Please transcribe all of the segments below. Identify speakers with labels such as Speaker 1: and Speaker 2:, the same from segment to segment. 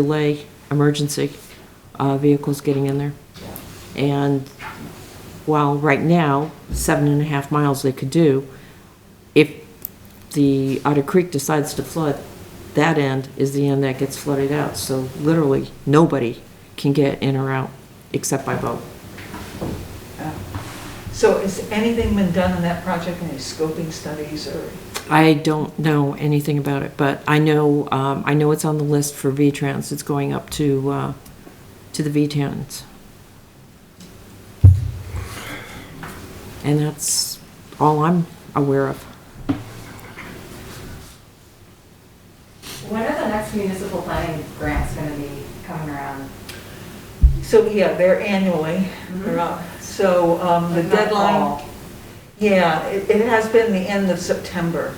Speaker 1: delay emergency uh, vehicles getting in there. And while right now, seven and a half miles they could do, if the Otter Creek decides to flood, that end is the end that gets flooded out. So literally, nobody can get in or out except by boat.
Speaker 2: So has anything been done on that project, any scoping studies or?
Speaker 1: I don't know anything about it, but I know, um, I know it's on the list for V-Trans. It's going up to, uh, to the V-Trans. And that's all I'm aware of.
Speaker 3: When are the next municipal planning grants going to be coming around?
Speaker 2: So, yeah, they're annually, they're up. So um, the
Speaker 3: Like, Mm-hmm. not
Speaker 2: deadline,
Speaker 3: all.
Speaker 2: yeah, it it has been the end of September.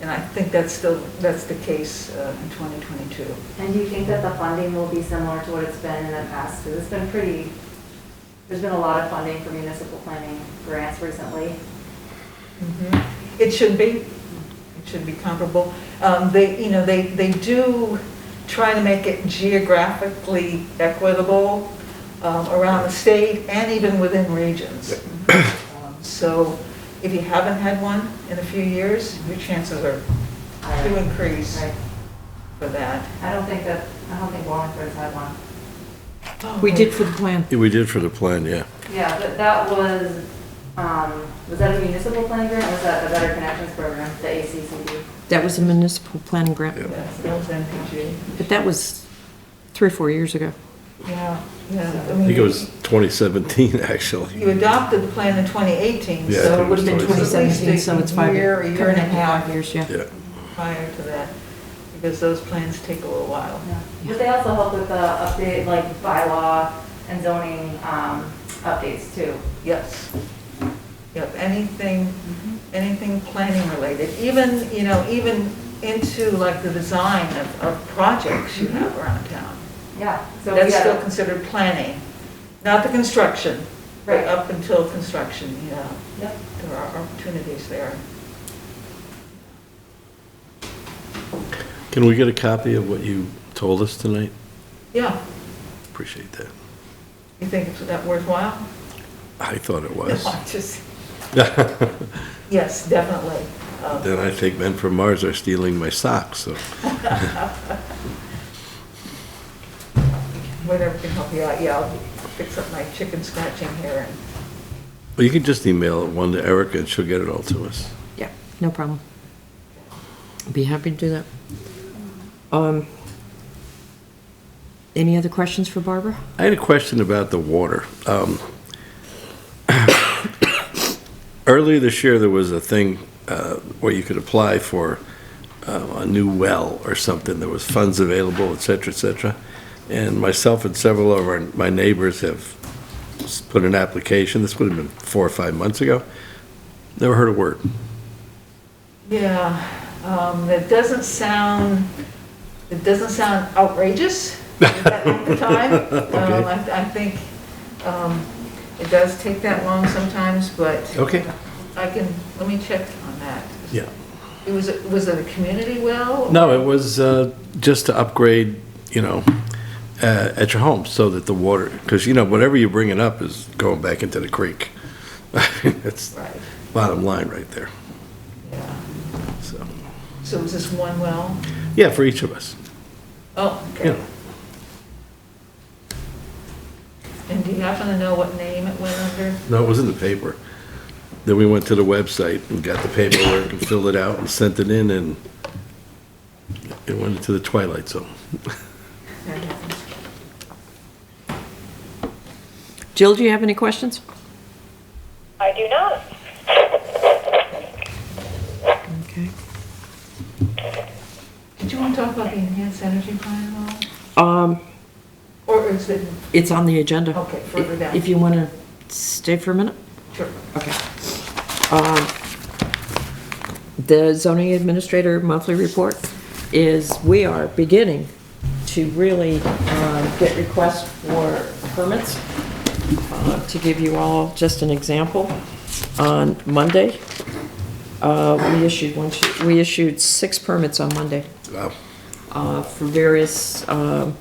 Speaker 2: And I think that's still, that's the case uh, in 2022.
Speaker 3: And do you think that the funding will be similar to what it's been in the past? Because it's been pretty, there's been a lot of funding for municipal planning grants recently.
Speaker 2: Mhm. It should be, it should be comparable. Um, They, you know, they, they do try to make it geographically equitable um, around the state and even within regions. Um, So if you haven't had one in a few years, your chances are to increase
Speaker 3: Right.
Speaker 2: for that.
Speaker 3: I don't think that, I don't think Wallingford's had one.
Speaker 1: We did for the plan.
Speaker 4: Yeah, We did for the plan, yeah.
Speaker 3: Yeah, but that was, um, was that a municipal planning grant or was that the Better Connections Program, the ACCD?
Speaker 1: That was a municipal planning grant,
Speaker 2: Yes, that was NPG.
Speaker 1: but that was three or four years ago.
Speaker 2: Oh, Yeah, yeah.
Speaker 4: I think it
Speaker 2: mean,
Speaker 4: was 2017,
Speaker 2: You
Speaker 4: actually.
Speaker 2: adopted the plan in 2018,
Speaker 4: Yeah, I
Speaker 2: so
Speaker 4: think
Speaker 1: It would have been
Speaker 2: at least
Speaker 1: 2017, so it's five
Speaker 2: a year,
Speaker 1: years.
Speaker 2: a year and a half
Speaker 1: Years, yeah.
Speaker 4: Yeah,
Speaker 2: prior to that, because those plans take a little while.
Speaker 3: But they also help with the update, like bylaw and zoning um, updates too.
Speaker 2: Yes. Yep, anything, anything planning related, even, you know, even into like the design of, of projects you have around town.
Speaker 3: Yeah. So we
Speaker 2: That's still
Speaker 3: got,
Speaker 2: considered planning, not the construction, but
Speaker 3: Right.
Speaker 2: up until construction, you know,
Speaker 3: Yep.
Speaker 2: there are opportunities there.
Speaker 4: Can we get a copy of what you told us tonight?
Speaker 2: Yeah,
Speaker 4: Appreciate that.
Speaker 2: you think it's that worthwhile?
Speaker 4: I thought it
Speaker 2: No,
Speaker 4: was.
Speaker 2: I just-
Speaker 4: Then
Speaker 2: Yes, definitely. Uh,
Speaker 4: I think men from Mars are stealing my socks, so.
Speaker 2: Whatever can help you out, yeah, I'll fix up my chicken scratching here and
Speaker 4: Well, you can just email it one to Erica and she'll get it all to us.
Speaker 1: Yeah, no problem. Be happy to do that. Um, Any other questions for Barbara?
Speaker 4: I had a question about the water. Um, Earlier this year, there was a thing uh, where you could apply for uh, a new well or something. There was funds available, et cetera, et cetera. And myself and several of our, my neighbors have s- put an application. This would have been four or five months ago. Never heard a word.
Speaker 2: Yeah, um, that doesn't sound, it doesn't sound outrageous at the time. Um, I, I think, um, it does take that long sometimes, but
Speaker 4: Okay.
Speaker 2: I can, let me check on that.
Speaker 4: Yeah.
Speaker 2: It was, was it a community well?
Speaker 4: No, it was uh, just to upgrade, you know, uh, at your home so that the water, because, you know, whatever you're bringing up is going back into the creek. That's
Speaker 2: Right,
Speaker 4: bottom line right there,
Speaker 2: yeah.
Speaker 4: so.
Speaker 2: So was this one well?
Speaker 4: Yeah, for each of us,
Speaker 2: Oh,
Speaker 4: you
Speaker 2: okay.
Speaker 4: know.
Speaker 2: And do you happen to know what name it went under?
Speaker 4: No, it was in the paper. Then we went to the website and got the paperwork and filled it out and sent it in and it went into the twilight zone.
Speaker 1: Jill, do you have any questions?
Speaker 5: I do not.
Speaker 1: Okay.
Speaker 2: Did you want to talk about the enhanced energy plan at all?
Speaker 1: Um,
Speaker 2: Or is it,
Speaker 1: it's on the agenda.
Speaker 2: Okay, further down.
Speaker 1: If you want to stay for a minute?
Speaker 2: sure.
Speaker 1: Okay. Um, The zoning administrator monthly report is, we are beginning to really um, get requests for permits. Uh, To give you all just an example, on Monday, uh, we issued one, two- we issued six permits on Monday
Speaker 4: Wow.
Speaker 1: uh, for various um,